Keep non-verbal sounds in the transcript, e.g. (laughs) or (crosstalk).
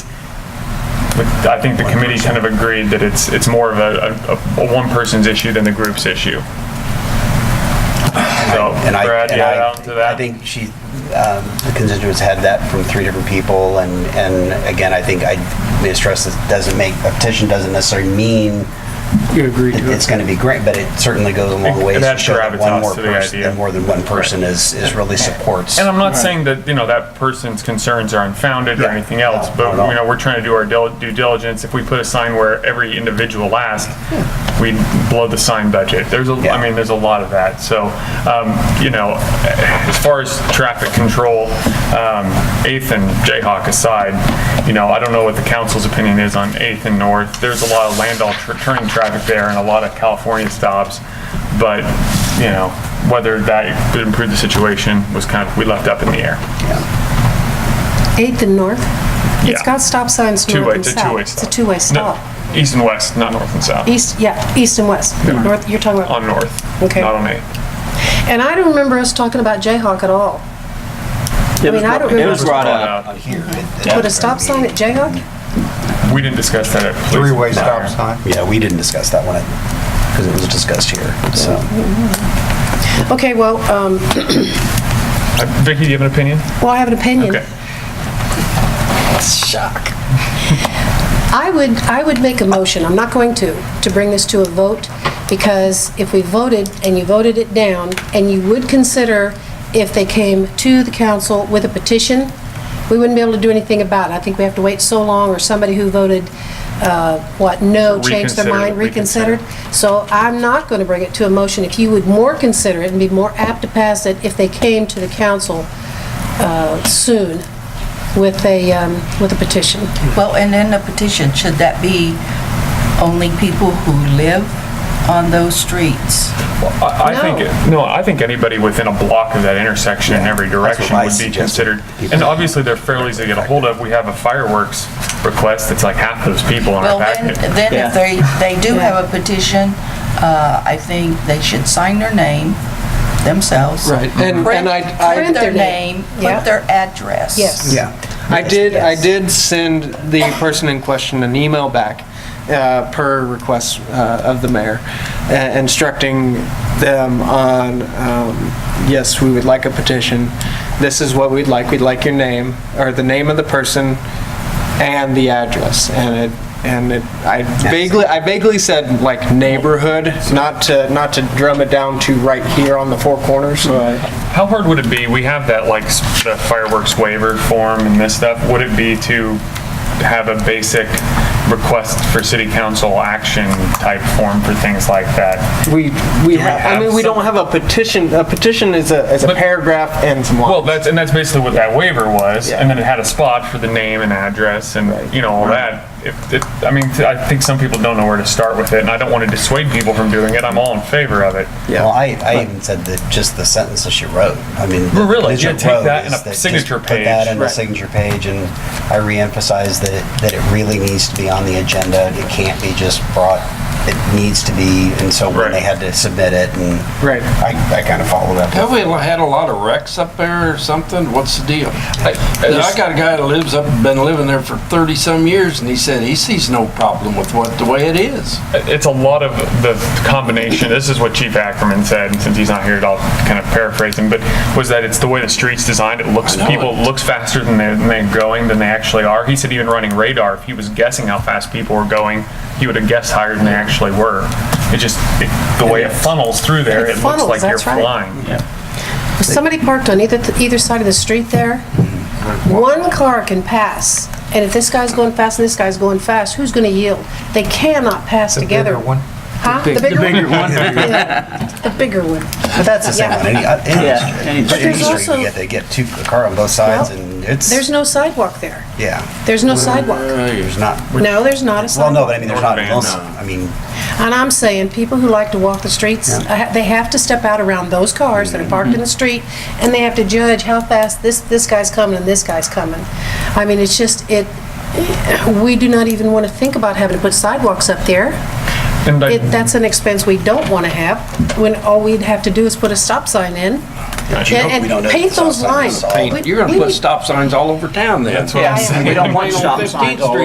the- I think the committee kind of agreed that it's, it's more of a, a, a one person's issue than the group's issue. So, And I- Brad, and you I- add on to that? I think she, um, the constituents had that from three different people, and, and again, I think I may stress that doesn't make, a petition doesn't necessarily mean You agree that to it's it. gonna be great, but it certainly goes a long It- way it to adds show that one gravitas more to the person, idea. that more than one person is, is really supports. And I'm not saying that, you know, that person's concerns are unfounded or Yeah. anything else, No, but, not at all. you know, we're trying to do our dil- due diligence. If we put a sign where every individual asks, we blow the sign budget. There's a, Yeah. I mean, there's a lot of that. So, um, you know, as far as traffic control, um, 8th and Jayhawk aside, you know, I don't know what the council's opinion is on 8th and North. There's a lot of landau tr- turning traffic there and a lot of California stops, but, you know, whether that could improve the situation was kind of, we left up in the air. 8th and North? It's Yeah. got stop signs north Two-way, and it's a south. two-way It's stop. a two-way No, stop. East and west, not north and south. East, yeah, east and west. North, you're talking about, On north, Okay. not on 8th. and I don't remember us talking about Jayhawk at all. I mean, I don't It was remember, brought up. On here. put a stop sign at Jayhawk? We didn't discuss that at police. Three-way stop fire. sign. Yeah, we didn't discuss that one, because it was discussed here, so. Okay, well, um, Uh, Vicky, do you have an opinion? well, I have an opinion. Okay. Shock. I would, I would make a motion, I'm not going to, to bring this to a vote, because if we voted and you voted it down, and you would consider if they came to the council with a petition, we wouldn't be able to do anything about it. I think we have to wait so long, or somebody who voted, uh, what, no, changed their Reconsider, mind, reconsider. reconsidered. So I'm not going to bring it to a motion. If you would more consider it and be more apt to pass it if they came to the council uh, soon with a, um, with a petition. Well, and in the petition, should that be only people who live on those streets? I, I No. think, it- no, I think anybody within a block of that intersection in every direction I would be suggested. considered. And obviously, they're fairly easy to get a hold of. We have a fireworks request that's like half those people in Well, our then, packet. then Yeah. if they, they do have a petition, uh, I think they should sign their name themselves. Right, and- Print- and I- I- Print Print their their name, name, yeah. put their address. Yes. Yeah. I did, I did send the person in question an email back, uh, per request uh, of the mayor, uh, instructing them on, um, yes, we would like a petition, this is what we'd like, we'd like your name, or the name of the person and the address, and it, and it, I vaguely, I vaguely said like neighborhood, not to, not to drum it down to right here on the four corners. How hard would it be? We have that like s- the fireworks waiver form and this stuff. Would it be to have a basic request for city council action type form for things like that? We, we have, I have mean, we some- don't have a petition, a petition is a, is a But- paragraph and some Well, lines. that's, and that's basically what that waiver was, Yeah. and then it had a spot for the name and address and, you know, all that. If, it I mean, I think some people don't know where to start with it, and I don't want to dissuade people from doing it, I'm all in favor of it. Yeah. Well, I, I even said that just the sentence that she wrote, I mean. the Well, really, vision yeah, take wrote that in is a that just signature Put that page. in the Right. signature page, and I reemphasized that, it- that it really needs to be on the agenda. It can't be just brought, it needs to be, and so when Right. they had to submit it, and. Right. I, I kind of followed up. Oh, Have we had a lot of wrecks up there or something? What's the deal? I there's- got a guy that lives up, been living there for 30-some years, and he said he sees no problem with what, the way it is. It's a lot of the combination, this is what Chief Ackerman said, and since he's not here, I'll kind of paraphrase him, but was that it's the way the street's designed, it looks, I know people, it. looks faster than they're, than they're going, than they actually are. He said even running radar, if he was guessing how fast people were going, he would have guessed higher than they actually were. It just, it- the way it funnels through there, It it looks funnels, like you're that's right. flying. If somebody parked on either, either side of the street there, one car can pass, and if this guy's going fast and this guy's going fast, who's going to yield? They cannot pass together. bigger one. Huh? The bigger one? (laughs) Yeah, The bigger one. But that's the same Yeah. on any, uh, Yeah, any street. Any any street. street, There's you also- get, they get two, a car on both sides, Well, and it's. There's no sidewalk there. Yeah, There's no Uh, sidewalk. there's not, No, there's not a well, no, sidewalk. but I mean, there's not, North in Van, uh, Wilson. I mean, And I'm saying, people who like to walk the streets, I ha- they have to step out around those cars that are parked in Mm-hmm. the street, and they have to judge how fast this, this guy's coming and this guy's coming. I mean, it's just, it, we do not even want to think about having to put sidewalks up there. And I- It, that's an expense we don't want to have, when all we'd have to do is put a stop sign in. We And don't and know paint if the those stop sign is lines. solid. We- You're going we to put need- stop signs all over town then. That's what I'm Yeah, I- saying. We don't want Stop stop signs signs all